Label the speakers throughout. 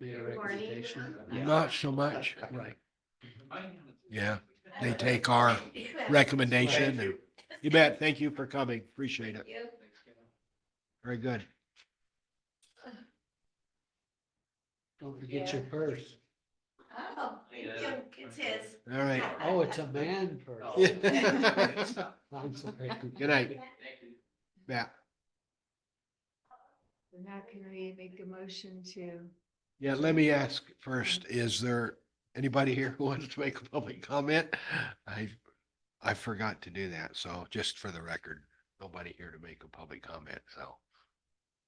Speaker 1: their reputation.
Speaker 2: Not so much.
Speaker 1: Right.
Speaker 2: Yeah, they take our recommendation. and- You bet. Thank you for coming. Appreciate it. Very good.
Speaker 1: Don't forget your purse.
Speaker 3: Oh, it's his.
Speaker 2: All right.
Speaker 1: Oh, it's a man purse.
Speaker 2: Good
Speaker 1: I'm sorry.
Speaker 2: Oh. night, Matt.
Speaker 3: We're not gonna really make a motion to.
Speaker 2: Yeah, let me ask first, is there anybody here who wants to make a public comment? I, I forgot to do that, so just for the record, nobody here to make a public comment, so.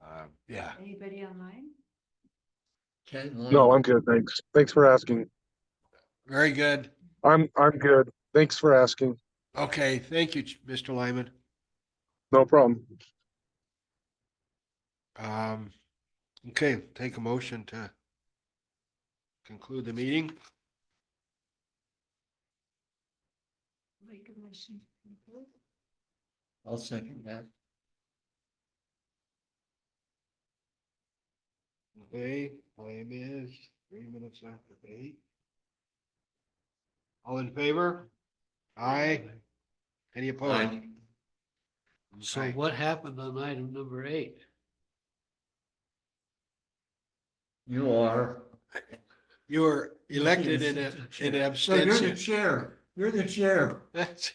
Speaker 2: Um, yeah,
Speaker 3: Anybody online?
Speaker 4: No, I'm good. Thanks. Thanks for asking.
Speaker 2: very good.
Speaker 4: I'm, I'm good. Thanks for asking.
Speaker 2: Okay, thank you, Ch- Mr. Lyman.
Speaker 4: No problem.
Speaker 2: Um, okay, take a motion to conclude the meeting.
Speaker 3: Make a motion.
Speaker 1: I'll second that.
Speaker 2: Okay, time is three minutes after eight. All in favor? Aye. Any opposed?
Speaker 1: So
Speaker 2: Okay.
Speaker 1: what happened on item number eight?
Speaker 5: You are.
Speaker 2: You were elected in a, in an
Speaker 5: So you're the
Speaker 2: abstention.
Speaker 5: chair. You're the chair.
Speaker 2: That's